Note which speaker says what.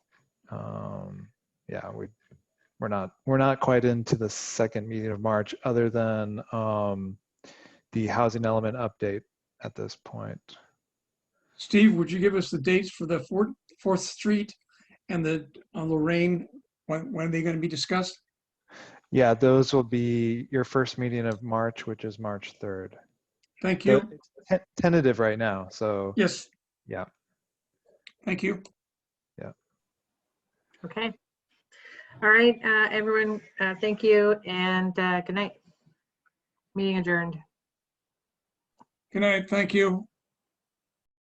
Speaker 1: Um, yeah, we, we're not, we're not quite into the second meeting of March, other than um, the housing element update at this point.
Speaker 2: Steve, would you give us the dates for the Fourth, Fourth Street and the uh, Lorraine? When, when are they going to be discussed?
Speaker 1: Yeah, those will be your first meeting of March, which is March 3rd.
Speaker 2: Thank
Speaker 1: So
Speaker 2: you.
Speaker 1: it's te- Tentative right now, so
Speaker 2: Yes.
Speaker 1: Yeah.
Speaker 2: Thank you.
Speaker 3: Okay. All right, uh, everyone, uh, thank you and uh, good night. Meeting adjourned.
Speaker 2: Good night. Thank you.